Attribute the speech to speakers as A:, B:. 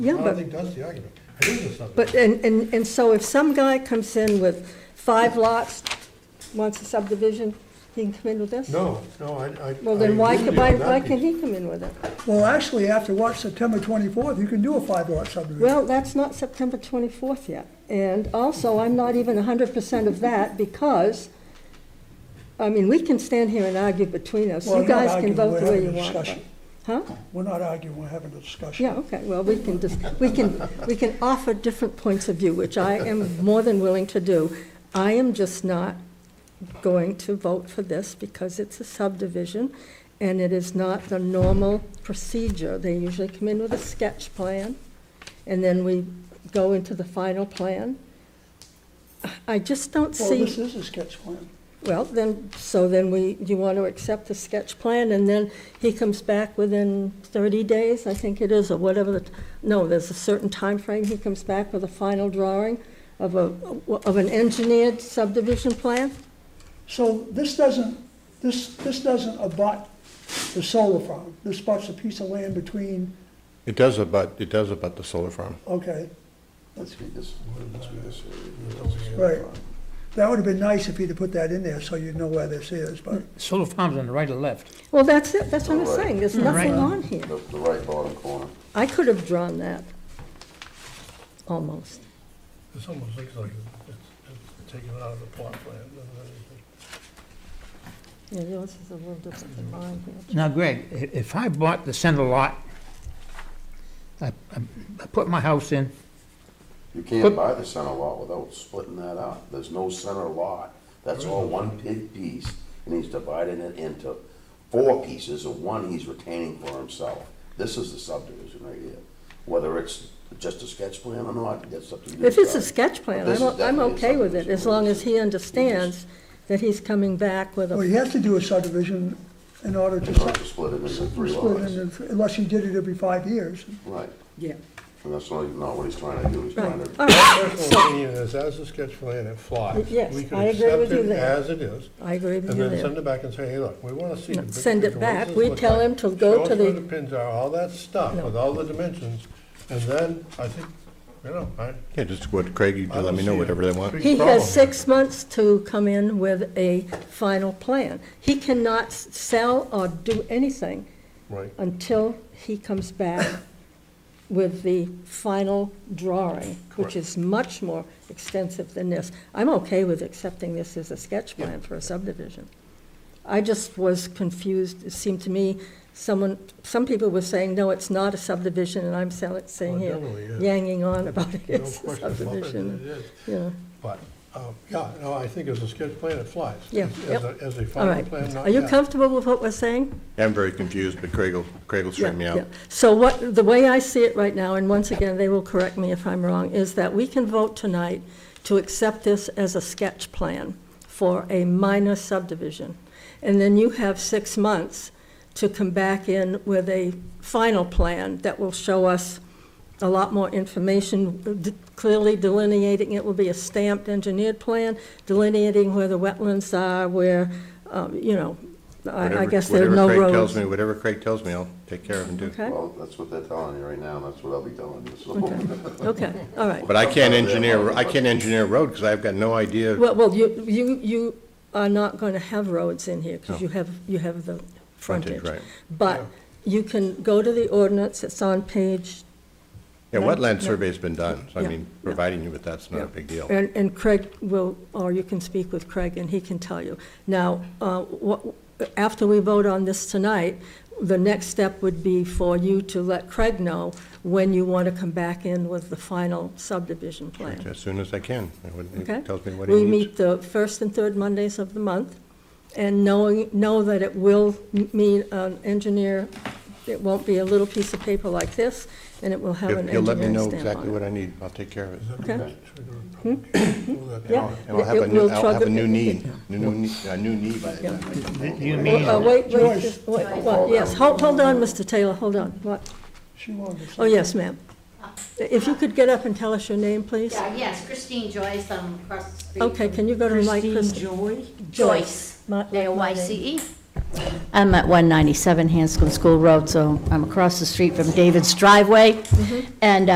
A: Yeah,
B: I
A: but-
B: don't think that's the argument. It is a
A: But,
B: subdivision.
A: and, and, and so if some guy comes in with five lots, wants a subdivision, he can come in with this?
B: No, no, I, I.
A: Well,
B: I
A: then why,
B: agree
A: can-
B: with you
A: why,
B: on that
A: why can
B: piece.
A: he come in with it?
C: Well, actually, after what, September twenty-fourth, you can do a five-lot subdivision.
A: Well, that's not September twenty-fourth yet. And also, I'm not even hundred percent of that because, I mean, we can stand here and argue between us.
C: Well,
A: You
C: I'm not
A: guys can
C: arguing,
A: vote
C: we're
A: the way
C: having
A: you
C: a
A: want. but-
C: discussion.
A: Huh?
C: We're not arguing, we're having a discussion.
A: Yeah, okay, well, we can just, we can, we can offer different points of view, which I am more than willing to do. I am just not going to vote for this because it's a subdivision and it is not the normal procedure. They usually come in with a sketch plan and then we go into the final plan. I just don't
C: Well,
A: see.
C: this is a sketch plan.
A: Well, then, so then we, you want to accept the sketch plan, and then he comes back within 30 days, I think it is, or whatever, the no, there's a certain time frame. he comes back with a final drawing of a, of an engineered subdivision plan?
C: So this doesn't, this, this doesn't abut the solar farm. This abuts a piece of land between,
D: It does about, it does about the solar farm.
C: okay,
E: Let's read this, let's read this.
C: right. That would have been nice if you'd have put that in there so you'd know where this is, but
F: Solar farms on the right or left?
A: Well, that's it, that's what I'm
E: All right.
A: saying, there's
F: Hmm, right.
A: nothing on here.
E: The, the right bottom corner.
A: I could have drawn that, almost.
B: This almost looks like it's, it's taken out of the plot plan and everything.
A: Yeah, yours is a little different than mine here.
F: Now, Greg, i- if I bought the center lot, I, I I put my house in,
E: You can't buy the center lot without splitting that up. There's no center lot. That's all one big piece, and he's dividing it into four pieces, and one he's retaining for himself. This is the subdivision right here. Whether it's just a sketch plan or not, that's up to you.
A: If it's a
E: guys.
A: sketch plan,
E: This
A: I'm,
E: is
A: o- I'm
E: definitely a
A: okay with it, as long as he
E: subdivision.
A: understands that he's coming back with a
C: well, you have to do a subdivision in order to
E: It's not
C: split
E: to split it into three lots.
C: it into- unless you did it every five years.
E: Right.
A: Yeah.
E: And that's not, not what he's trying to do. He's trying
A: Right,
E: to
A: all right,
B: Personal opinion is, as a sketch plan, it flies.
A: Yes,
B: We can
A: I agree with
B: accept it
A: you there.
B: As it is,
A: I agree with
B: and
A: you
B: then send
A: there.
B: it back and say, hey, look, we wanna see.
A: No,
B: the big
A: send it
B: picture. What does
A: back.
B: this
A: We
B: look
A: tell
B: like?
A: him to go
B: Show
A: to
B: us where
A: the-
B: pins are, all that stuff,
A: No.
B: with all the dimensions, and then I think, you know, I,
D: Yeah, just what Craig, you
B: I
D: let
B: don't
D: me know
B: see
D: whatever they
B: a
D: want.
B: big
A: He
B: problem.
A: has six months to come in with a final plan. He cannot s- sell or do anything
B: Right.
A: until he comes back with the final drawing, which
B: Correct.
A: is much more extensive than this. I'm okay with accepting this as a sketch plan for a subdivision. I just was confused, it seemed to me, someone, some people were saying, no, it's not a subdivision, and I'm sell- saying
B: Well, it
A: here,
B: definitely is.
A: yanging on about it,
B: Oh, No
A: it's a
B: question about it, it
A: subdivision,
B: is.
A: you know.
B: But, um, yeah, no, I think as a sketch plan, it flies.
A: Yeah,
B: As-
A: yep.
B: As a, as a
A: All
B: final
A: right,
B: plan, not
A: are you
B: yet.
A: comfortable with what we're saying?
D: I'm very confused, but Craig will, Craig will straighten me
A: Yeah,
D: out.
A: yeah. So what, the way I see it right now, and once again, they will correct me if I'm wrong, is that we can vote tonight to accept this as a sketch plan for a minor subdivision. And then you have six months to come back in with a final plan that will show us a lot more information, d- clearly delineating, it will be a stamped engineered plan, delineating where the wetlands are, where, um, you know, I I
D: Whatever-
A: guess there are no roads.
D: Whatever Craig tells me, whatever Craig tells me, I'll take care of and do.
A: Okay?
E: Well, that's what they're telling you right now, and that's what I'll be telling you, so.
A: Okay, all right.
D: But I can't engineer, I can't engineer a road because I've got no idea.
A: Well, well, you, you, you are not going to have roads in here because you have, you have the frontage.
D: Frontage, right.
A: But you can go to the ordinance, it's on page,
D: Yeah,
A: no,
D: wetland
A: no.
D: survey's been done, so I
A: Yeah,
D: mean,
A: yeah.
D: providing you with that's not a big deal.
A: and, and Craig will, or you can speak with Craig and he can tell you. Now, uh, what, after we vote on this tonight, the next step would be for you to let Craig know when you want to come back in with the final subdivision plan.
D: As soon as I can, and when
A: Okay?
D: he tells me what he
A: We
D: needs.
A: meet the first and third Mondays of the month, and knowing, know that it will m- mean an engineer, it won't be a little piece of paper like this, and it will have an
D: If You'll let me
A: engineering
D: know
A: stamp
D: exactly
A: on
D: what
A: it.
D: I need, I'll take care of it.
B: Is that
A: Okay. Hmm?
B: trigger a public hearing? Pull that
A: Yeah.
B: down.
D: And I'll have
A: It
D: a new,
A: will
D: I'll have
A: trigger-
D: a new need, new, new need- a new need by the
A: Yeah.
D: time I can
F: You-
D: make
F: you
D: it.
F: mean-
A: Uh, Wait, wait,
C: Joyce.
A: just- wait,
E: Joyce.
A: what, yes, hold, hold on, Mr. Taylor, hold on, what,
C: She wanted to.
A: oh, yes, ma'am. If you could get up and tell us your name, please?
G: Yeah, yes, Christine Joyce, I'm across the street.
A: Okay,
G: from
A: can you go to the mic, Christine?
H: Joy?
G: Joyce,
A: My- my name.
G: J-O-Y-C-E. I'm at 197 Hanscom School Road, so I'm across the street from David's driveway. And